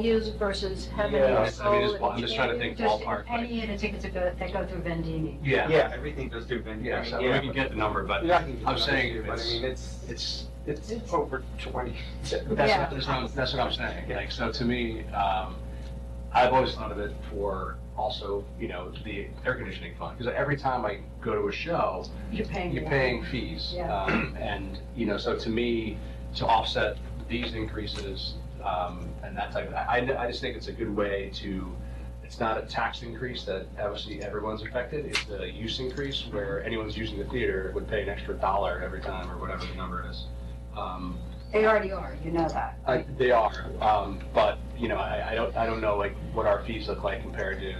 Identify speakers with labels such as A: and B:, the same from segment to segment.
A: use versus having
B: Yeah, I
A: it
B: mean, it's-
A: sold.
B: I'm just trying to think
C: Just
B: ballpark, like-
C: Any of the tickets that go, that go through Vendini.
B: Yeah,
D: Yeah, everything goes through vending.
B: yeah, so we can get the number, but I'm saying
D: But I
B: it's-
D: mean, it's,
B: it's,
D: it's over twenty.
B: that's,
A: Yeah.
B: what- that's what, that's what I'm saying, like, so to me, um, I've always thought of it for also, you know, the air conditioning fund, because every time I go to a show,
C: You're paying.
B: you're paying fees.
C: Yeah.
B: Um, and, you know, so to me, to offset these increases, um, and that type, of- I, I- I just think it's a good way to, it's not a tax increase that obviously everyone's affected, it's a use increase where anyone's using the theater would pay an extra dollar every time or whatever the number is. Um,
C: They already are, you know that.
B: I, they are, um, but, you know, I, I don't, I don't know like what our fees look like compared to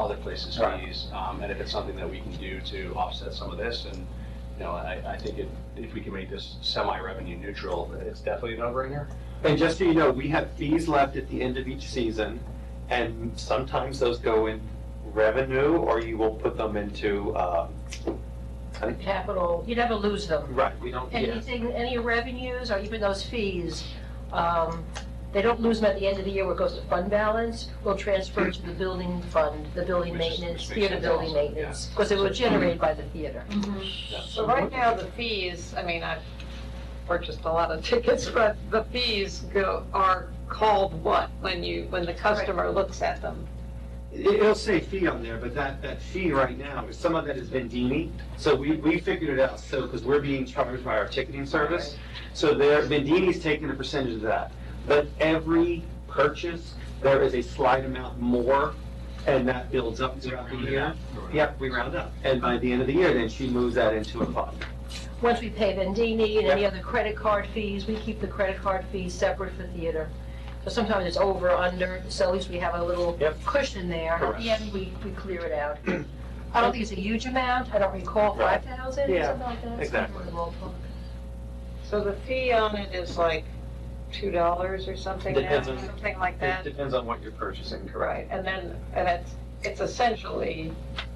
B: other places'
D: Right.
B: fees. Um, and if it's something that we can do to offset some of this and, you know, I, I think if, if we can make this semi-revenue neutral, it's definitely a no-brainer.
D: And just so you know, we have fees left at the end of each season, and sometimes those go in revenue, or you will put them into, um,
A: Capital, you never lose them.
D: right, we don't, yeah.
A: Anything, any revenues or even those fees, um, they don't lose them at the end of the year where it goes to fund balance. We'll transfer to the building fund, the building
B: Which is- which
A: maintenance,
B: makes
A: theater
B: sense
A: building
B: also, yeah.
A: maintenance, because it was generated by the theater.
B: Mm-hmm.
E: So right now, the fees, I mean, I've purchased a lot of tickets, but the fees go, are called what when you, when the customer looks at them?
D: It- It'll say fee on there, but that, that fee right now, is some of that is Vendini. So we, we figured it out, so, because we're being charged by our ticketing service. So there, Vendini's taking a percentage of that. But every purchase, there is a slight amount more, and that builds up throughout the year. Yep, we round up. And by the end of the year, then she moves that into a fund.
A: Once we pay Vendini and any other credit card fees, we keep the credit card fees separate for theater. So sometimes it's over, under, so at least we have a little
D: Yep.
A: cushion there. At
D: Correct.
A: the end, we, we clear it out. I don't think it's a huge amount, I don't recall,
D: Right.
A: 5,000,
D: Yeah,
A: something like that?
D: exactly.
E: So the fee on it is like two dollars or something now,
D: Depends on-
E: something like
D: It
E: that?
D: depends on what you're purchasing, correct?
E: Right, and then, and it's, it's essentially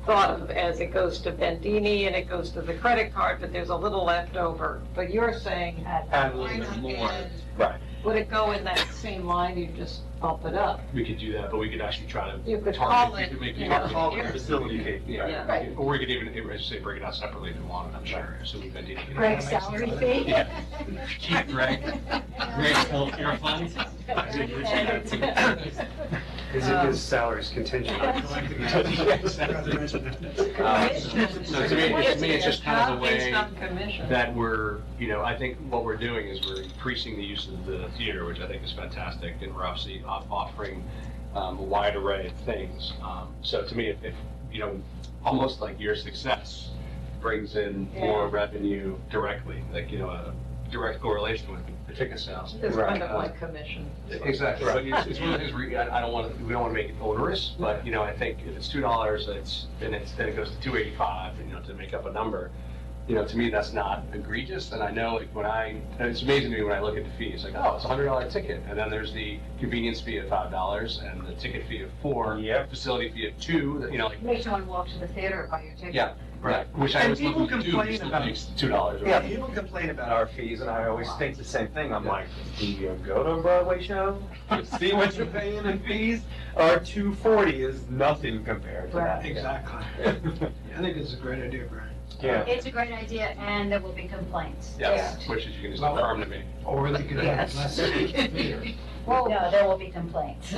E: thought of as it goes to Bendini and it goes to the credit card, but there's a little left over. But you're saying,
D: Add a
E: why
D: little bit
E: not
D: more.
E: add-
D: Right.
E: Would it go in that same line, you just bump it up?
B: We could do that, but we could actually try to.
E: You could
B: target-
E: call
B: we
E: it,
B: could make
E: you
B: it-
E: know,
D: Call
E: here.
D: it facility fee.
B: Yeah,
A: Right.
B: or we could even, as you say, break it out separately if you want, I'm sure, so we can.
A: Greg's salary fee?
B: Yeah. Keep Greg, Greg's healthcare fund.
F: His, his salary's contingent on collecting.
B: Um, So to me, to me, it's just kind of the way that we're, you know, I think what we're doing is we're increasing the use of the theater, which I think is fantastic, and we're obviously off- offering um, a wide array of things. Um, So to me, if, if, you know, almost like your success brings in more revenue directly, like, you know, a direct correlation with the ticket sales.
E: It's kind of
B: Right.
E: like commission.
B: Exactly, so it's, it's one of those, re- I I don't want to, we don't want to make it onerous, but, you know, I think if it's two dollars, it's, then it's, then it goes to two eighty-five, you know, to make up a number. You know, to me, that's not egregious, and I know, like, when I, and it's amazing to me when I look at the fees, like, oh, it's a hundred dollar ticket, and then there's the convenience fee of five dollars, and the ticket fee of four.
D: Yep.
B: Facility fee of two, that, you know, like,
C: Make someone walk to the theater by your ticket.
B: Yeah.
D: Right.
B: which I
D: And
B: was
D: people
B: looking to do,
D: complain
B: just
D: about-
B: makes two dollars.
D: Yeah, people complain about our fees, and I always think the same thing. I'm like, do you go to a Broadway show? See what you're paying in fees? Our two forty is nothing compared to that.
F: Exactly. I think it's a great idea, Brian.
D: Yeah.
C: It's a great idea, and there will be complaints.
B: Yeah, which is, you can just affirm to me.
F: Or they could have less. theater.
C: No, there will be complaints.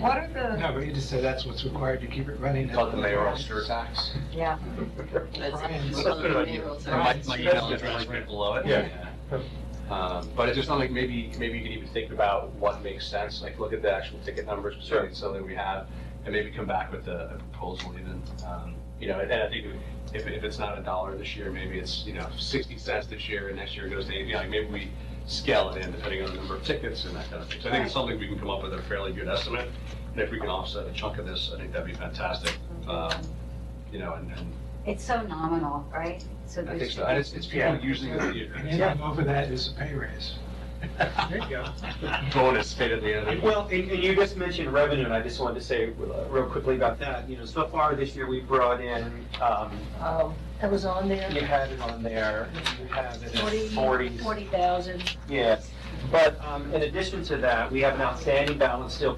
E: What are the,
F: No, but you just say that's what's required to keep it running.
B: Call it the mayoral stir tax.
C: Yeah.
F: Brian's.
D: That's a good idea.
B: My, my email address right below it.
D: Yeah.
B: Um, but it's just something, maybe, maybe you could even think about what makes sense, like look at the actual ticket numbers,
D: Sure.
B: so something we have, and maybe come back with a a proposal even. Um, You know, and I think if, if it's not a dollar this year, maybe it's, you know, sixty cents this year, and next year it goes to eighty, like maybe we scale it in depending on the number of tickets and that kind of thing. So I think it's something we can come up with a fairly good estimate, and if we can offset a chunk of this, I think that'd be fantastic. Um, You know, and, and
C: It's so nominal, right?
B: I think so, and it's, it's people using the
F: And anything over that is a pay raise.
D: There you go.
B: bonus paid at the end. of the-
D: Well, and, and you just mentioned revenue, and I just wanted to say uh, real quickly about that. You know, so far this year, we brought in, um,
A: Um, That was on there,
D: you had it on there, you have it at
A: 40,
D: forty.
A: 40,000.
D: Yes, But um, in addition to that, we have an outstanding balance still